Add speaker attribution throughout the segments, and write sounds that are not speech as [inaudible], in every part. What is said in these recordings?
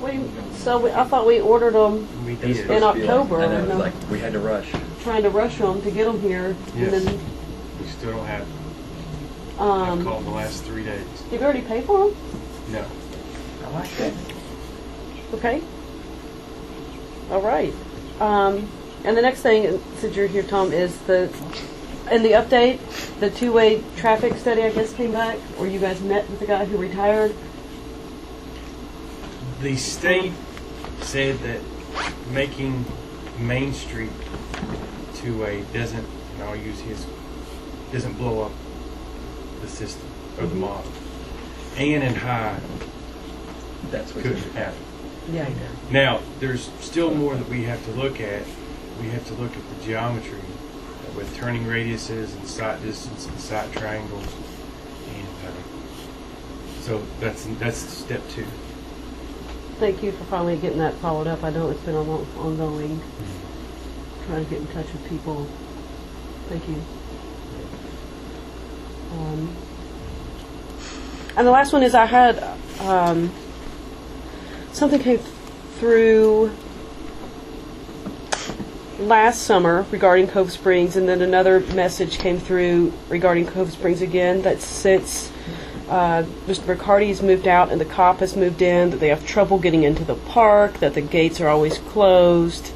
Speaker 1: We, so we, I thought we ordered them,
Speaker 2: We
Speaker 3: It was
Speaker 2: did.
Speaker 1: In
Speaker 3: supposed to be like-
Speaker 1: October,
Speaker 3: I know, it
Speaker 1: no.
Speaker 3: was like, we had to rush.
Speaker 1: trying to rush them to get them here.
Speaker 2: Yes.
Speaker 1: And then,
Speaker 2: We still don't have, have
Speaker 1: um,
Speaker 2: called in the last three days.
Speaker 1: did we already pay for them?
Speaker 2: No.
Speaker 3: I
Speaker 4: Oh,
Speaker 3: like that.
Speaker 1: Okay. All right. Um, and the next thing, since you're here, Tom, is the, in the update, the two-way traffic study, I guess, came back, or you guys met with the guy who retired.
Speaker 2: The state said that making Main Street two-way doesn't, and I'll use his, doesn't blow up the system or the model. Ann and High
Speaker 3: That's what
Speaker 2: could
Speaker 3: you
Speaker 2: happen.
Speaker 1: Yeah, he
Speaker 2: Now, there's still more that we have to look at. We have to look at the geometry with turning radiuses and sight distance and sight triangles. And uh, so that's that's step two.
Speaker 1: Thank you for finally getting that followed up. I know it's been a long, ongoing, trying to get in touch with people. Thank you. Um, and the last one is I had um, something came through last summer regarding Cove Springs, and then another message came through regarding Cove Springs again that since uh, Mr. McCarty's moved out and the cop has moved in, that they have trouble getting into the park, that the gates are always closed,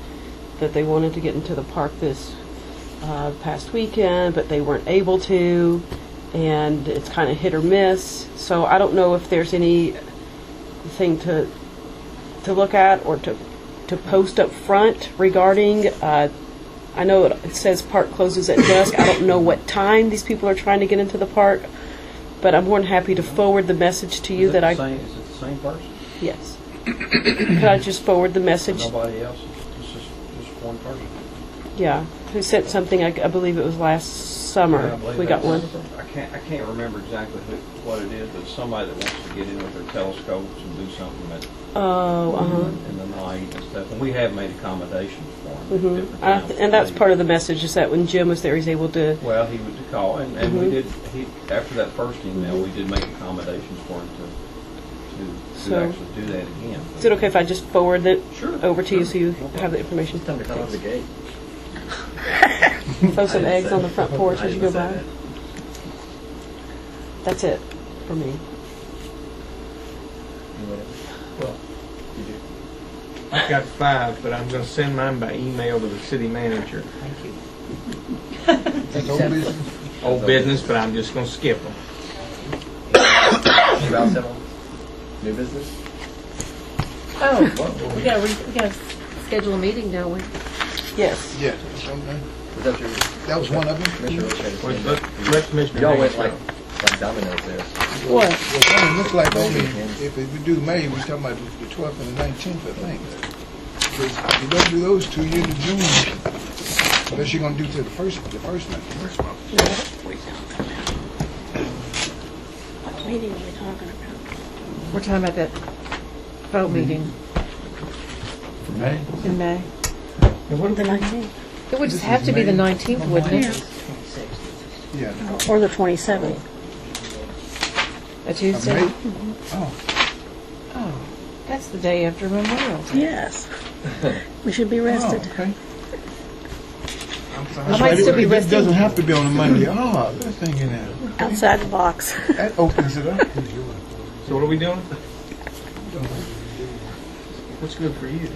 Speaker 1: that they wanted to get into the park this uh, past weekend, but they weren't able to, and it's kind of hit or miss. So I don't know if there's any thing to to look at or to to post up front regarding. Uh, I know it says park closes at dusk. I don't know what time these people are trying to get into the park, but I'm more than happy to forward the message to you
Speaker 4: Is
Speaker 1: that
Speaker 4: it the
Speaker 1: I
Speaker 4: same- Is it the same person?
Speaker 1: yes. [coughs] Could I just forward the message?
Speaker 4: Nobody else? It's just, just one person?
Speaker 1: Yeah, who sent something? I, I believe it was last
Speaker 4: Yeah, I
Speaker 1: summer.
Speaker 4: believe
Speaker 1: We got one.
Speaker 4: that's- I can't, I can't remember exactly who, what it is, but it's somebody that wants to get in with their telescopes and do something at,
Speaker 1: Oh, uh huh.
Speaker 4: in the night and stuff. And we have made accommodations for them. at different
Speaker 1: Mm-hmm. I,
Speaker 4: times.
Speaker 1: and that's part of the message is that when Jim was there, he's able to.
Speaker 4: Well, he was to call, and, and we
Speaker 1: Mhm.
Speaker 4: did, he, after that first email, we did make accommodations for him to, to,
Speaker 1: So-
Speaker 4: to actually do that again.
Speaker 1: Is it okay if I just forward it
Speaker 4: Sure.
Speaker 1: over to you so you
Speaker 4: No problem.
Speaker 1: have the information?
Speaker 3: Time to close the gate.
Speaker 1: Throw some
Speaker 3: I didn't
Speaker 1: eggs
Speaker 3: say-
Speaker 1: on the
Speaker 4: [laughs]
Speaker 1: front porch
Speaker 3: I
Speaker 1: as you go
Speaker 3: didn't
Speaker 1: by.
Speaker 3: say
Speaker 1: That's it for me.
Speaker 3: that. You wouldn't.
Speaker 5: Well, I've got five, but I'm gonna send mine by email to the city manager.
Speaker 3: That's all business.
Speaker 5: Old business, but I'm just gonna skip them.
Speaker 3: Should I settle? New business?
Speaker 6: Oh, we gotta, re- we gotta schedule a meeting, don't we?
Speaker 1: Yes.
Speaker 7: Yeah, okay.
Speaker 3: Was that your,
Speaker 7: that was one of them.
Speaker 6: Mm-hmm.
Speaker 3: Commissioner Roche's
Speaker 5: Well,
Speaker 3: hand
Speaker 5: let-
Speaker 3: up?
Speaker 5: let Commissioner
Speaker 3: Y'all
Speaker 5: Hanks
Speaker 3: went like,
Speaker 5: go.
Speaker 3: like dominoes there.
Speaker 1: What?
Speaker 7: Well, something looks like only, if we do May, we're talking about the twelfth and the nineteenth, I think. Because if you don't do those two, you're in June, unless you're gonna do to the first, the first one.
Speaker 1: What meeting are we talking about?
Speaker 6: We're talking about that
Speaker 7: Mm-hmm.
Speaker 6: vote meeting in May. It would
Speaker 7: This
Speaker 6: just have
Speaker 7: is
Speaker 6: to be the
Speaker 7: May. Oh,
Speaker 6: 19th, wouldn't it?
Speaker 7: Yeah.
Speaker 1: Or the 27th.
Speaker 4: Oh.
Speaker 6: A
Speaker 7: Of
Speaker 6: Tuesday?
Speaker 7: May? Oh,
Speaker 6: Oh, that's the day after Memorial
Speaker 4: [laughs]
Speaker 6: Day.
Speaker 8: Yes. We should be
Speaker 7: oh,
Speaker 8: rested.
Speaker 7: okay.
Speaker 6: I might still be
Speaker 7: Uh-huh. It
Speaker 6: resting.
Speaker 7: doesn't have to be on a Monday, oh, that's thinking that,
Speaker 4: Oh.
Speaker 8: Outside the box.
Speaker 7: that opens it up.
Speaker 5: So what are we doing? What's good for you?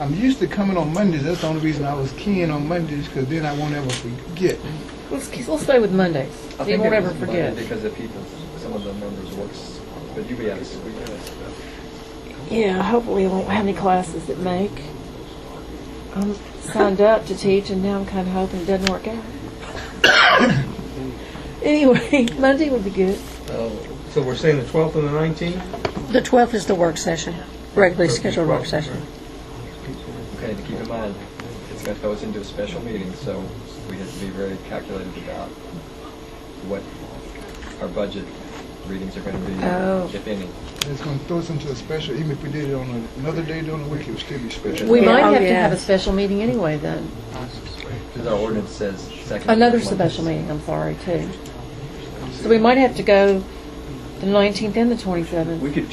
Speaker 7: I'm used to coming on Mondays, that's the only reason I was keen on Mondays, because then I won't ever forget.
Speaker 6: Let's, let's stay with Mondays.
Speaker 3: I
Speaker 6: You
Speaker 3: think
Speaker 6: won't
Speaker 3: it
Speaker 6: ever
Speaker 3: was money
Speaker 6: forget.
Speaker 3: Because of people, some of the members works, but you be out of school.
Speaker 6: Yeah, hopefully we won't have any classes that make. I'm signed up to teach, and now I'm kind of hoping it doesn't work out. [coughs] Anyway, [laughs] Monday would be good.
Speaker 5: So we're saying the 12th and the 19th?
Speaker 8: The 12th is the work session, regularly scheduled work session.
Speaker 3: Okay, to keep in mind, it's gonna throw us into a special meeting, so we have to be very calculated about what our budget readings are gonna
Speaker 6: Oh.
Speaker 3: be, if any.
Speaker 7: It's gonna throw us into a special, even if we did it on another day during the week, it would still be special.
Speaker 6: We
Speaker 8: Yeah,
Speaker 6: might
Speaker 8: oh,
Speaker 6: have to
Speaker 8: yeah.
Speaker 6: have a special meeting anyway, then.
Speaker 3: Because our ordinance says second.
Speaker 6: Another
Speaker 3: Monday.
Speaker 6: special meeting, I'm sorry, too. So we might have to go the 19th and the 27th.
Speaker 3: We could